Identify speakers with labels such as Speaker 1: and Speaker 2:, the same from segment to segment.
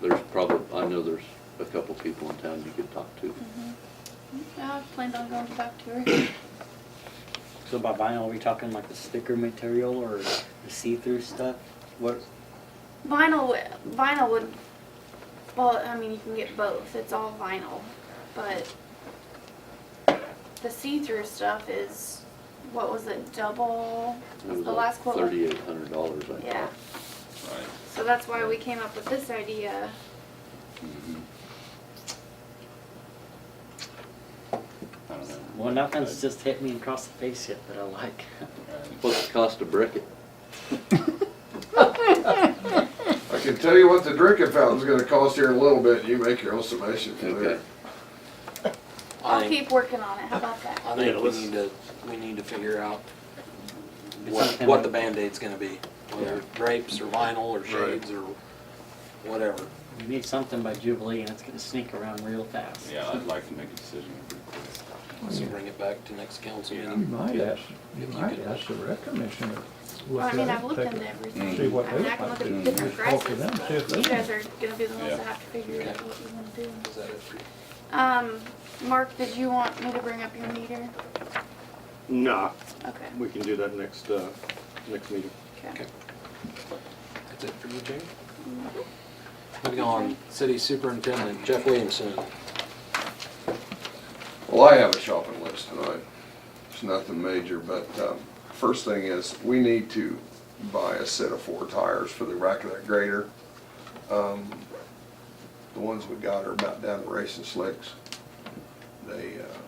Speaker 1: there's probably, I know there's a couple people in town you could talk to.
Speaker 2: I Mm-hmm. planned on going to talk to her.
Speaker 3: So by vinyl, are we talking like the sticker material or the see-through stuff? What,
Speaker 2: Vinyl, would- vinyl would, well, I mean, you can get both. It's all vinyl, but the see-through stuff is, what was it, double?
Speaker 1: It was
Speaker 2: The last quote. was-
Speaker 1: Thirty-eight hundred dollars, I
Speaker 2: Yeah,
Speaker 1: thought.
Speaker 4: Right.
Speaker 2: so that's why we came up with this idea.
Speaker 1: Mhm. I don't know.
Speaker 3: well, nothing's just hit me across the face yet that I like.
Speaker 1: What's the cost of brick it?
Speaker 5: I can tell you what the drinking fountain's gonna cost here in a little bit, and you make your own summation from there.
Speaker 1: Okay.
Speaker 2: I'll
Speaker 6: I think-
Speaker 2: keep working on it. How about that?
Speaker 6: I think we
Speaker 3: let's-
Speaker 6: need to, we need to figure out
Speaker 3: It's
Speaker 6: what,
Speaker 3: something
Speaker 6: what the
Speaker 3: like-
Speaker 6: Band-Aid's gonna be, whether drapes or vinyl or shades or whatever.
Speaker 3: We need something by Jubilee and it's gonna sneak around real fast.
Speaker 4: Yeah, I'd like to make a decision pretty quick.
Speaker 6: So bring it back to next council
Speaker 4: Yeah.
Speaker 7: You
Speaker 6: meeting.
Speaker 7: might ask, you
Speaker 6: If you
Speaker 7: might
Speaker 6: could-
Speaker 7: ask the rec commissioner.
Speaker 2: Well, I
Speaker 7: look
Speaker 2: mean,
Speaker 7: at
Speaker 2: I've
Speaker 7: it,
Speaker 2: looked
Speaker 7: take
Speaker 2: into
Speaker 7: it.
Speaker 2: everything.
Speaker 7: Mm. See what
Speaker 2: I mean,
Speaker 7: they
Speaker 2: I can
Speaker 7: like
Speaker 2: look at
Speaker 7: to
Speaker 2: different
Speaker 7: do. Talk to
Speaker 2: prices,
Speaker 7: them, see if
Speaker 2: but
Speaker 7: they-
Speaker 2: you guys are gonna be the ones
Speaker 4: Yeah.
Speaker 2: that have to figure out
Speaker 6: Okay.
Speaker 2: what you wanna do.
Speaker 6: Is that it for you?
Speaker 2: Um, Mark, did you want me to bring up your meter?
Speaker 8: Nah,
Speaker 2: Okay,
Speaker 8: we can do that next, uh, next meeting.
Speaker 2: okay.
Speaker 6: Okay. That's it for you, Jay? Moving on, city superintendent Jeff Williamson.
Speaker 5: Well, I have a shopping list tonight. It's nothing major, but um, first thing is, we need to buy a set of four tires for the rack of that grader. Um, The ones we got are about down to racing slicks. They, uh,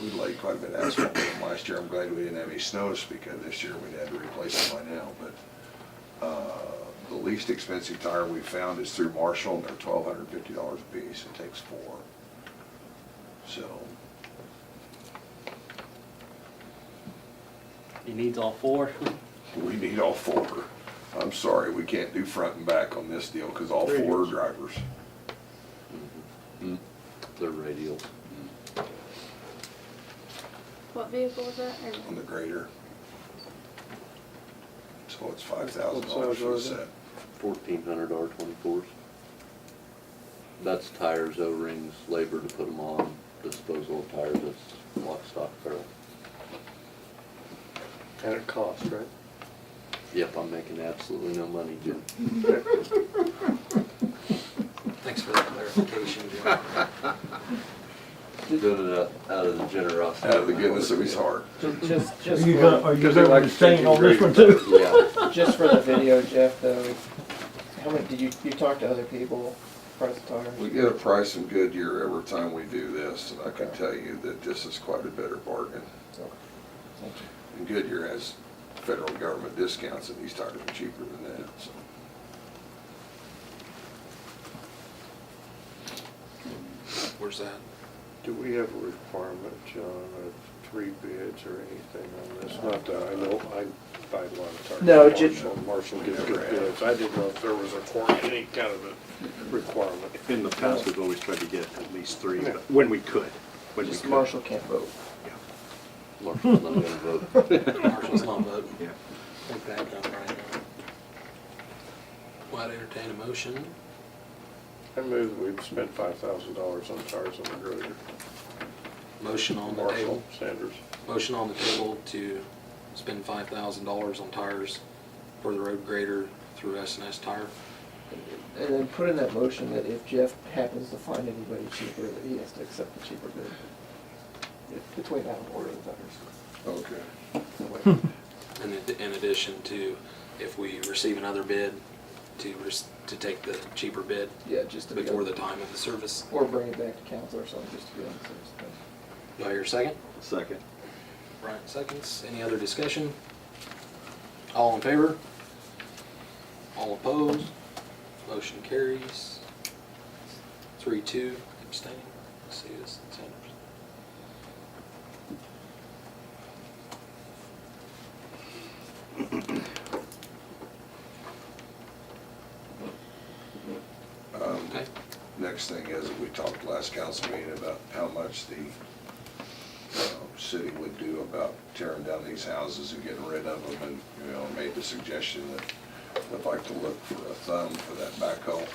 Speaker 5: we laid quite a bit of asphalt on them last year. I'm glad we didn't have any snows because this year we'd had to replace them by now, but uh, the least expensive tire we found is through Marshall, and they're twelve hundred fifty dollars a piece. It takes four. So,
Speaker 3: It needs all four.
Speaker 5: We need all four. I'm sorry, we can't do front and back on this deal because all four are drivers.
Speaker 1: They're radial.
Speaker 2: What vehicle was that?
Speaker 5: on
Speaker 2: Or-
Speaker 5: the grader. So it's five
Speaker 8: What
Speaker 5: thousand
Speaker 8: size
Speaker 5: dollars for
Speaker 8: are
Speaker 5: the
Speaker 8: they?
Speaker 5: set.
Speaker 1: Fourteen hundred R twenty-fours. That's tires, O-rings, labor to put them on, disposal of tires, that's lock, stock, barrel.
Speaker 6: At a cost, right?
Speaker 1: Yep, I'm making absolutely no money, Jim.
Speaker 6: Thanks for that clarification, Jim.
Speaker 1: Doing it out, out of the generosity.
Speaker 5: Out of the
Speaker 1: my
Speaker 5: goodness of
Speaker 1: heart.
Speaker 5: his heart.
Speaker 9: Just,
Speaker 7: Are
Speaker 9: just
Speaker 7: you gonna,
Speaker 9: for,
Speaker 7: are you
Speaker 5: Because they like
Speaker 7: gonna
Speaker 5: to
Speaker 7: abstain
Speaker 5: take
Speaker 7: on this
Speaker 5: your
Speaker 7: one too?
Speaker 1: Yeah,
Speaker 9: just for the video, Jeff, though, how many, did you, you talk to other people, press tires?
Speaker 5: We get a price from Goodyear every time we do this, and I can tell you that this is quite a better bargain. And Goodyear has federal government discounts and these tires are cheaper than that, so.
Speaker 6: Where's that?
Speaker 8: Do we have a requirement, John, of three bids or anything on this? Not that I know, I buy a lot of tires.
Speaker 9: No,
Speaker 8: from
Speaker 9: ju-
Speaker 8: Marshall. Marshall gives
Speaker 5: We never
Speaker 8: good
Speaker 5: have.
Speaker 8: bids. I didn't know if there was a, quar- any kind of a requirement.
Speaker 10: In the past, we've always tried to get at least three,
Speaker 8: Yeah.
Speaker 10: but when we could, when we
Speaker 9: Just
Speaker 10: could.
Speaker 9: Marshall can't vote.
Speaker 1: Marshall's not gonna vote.
Speaker 6: Marshall's not voting.
Speaker 10: Yeah.
Speaker 6: Take that down right now. Well, I'd entertain a motion.
Speaker 8: I move we've spent five thousand dollars on tires on the grader.
Speaker 6: Motion on the table.
Speaker 8: Marshall, Sanders.
Speaker 6: Motion on the table to spend five thousand dollars on tires for the road grader through S and S Tire.
Speaker 9: And then put in that motion that if Jeff happens to find anybody cheaper, that he has to accept the cheaper bid. If- Between that and ordering tires.
Speaker 5: Okay.
Speaker 9: That way-
Speaker 6: And in- in addition to, if we receive another bid, to, res- to take the cheaper bid
Speaker 9: Yeah, just to be.
Speaker 6: before
Speaker 9: on-
Speaker 6: the time of the service.
Speaker 9: Or bring it back to council or something, just to be on the safe side.
Speaker 6: Do I hear a second?
Speaker 10: Second.
Speaker 6: Right. seconds. Any other discussion? All in favor? All opposed? Motion carries. Three, two, abstaining. Let's see this, Sanders.
Speaker 5: Um,
Speaker 6: Okay.
Speaker 5: Next thing is, we talked last council meeting about how much the um, city would do about tearing down these houses and getting rid of them, and, you know, made the suggestion that I'd like to look for a thumb for that backhoe.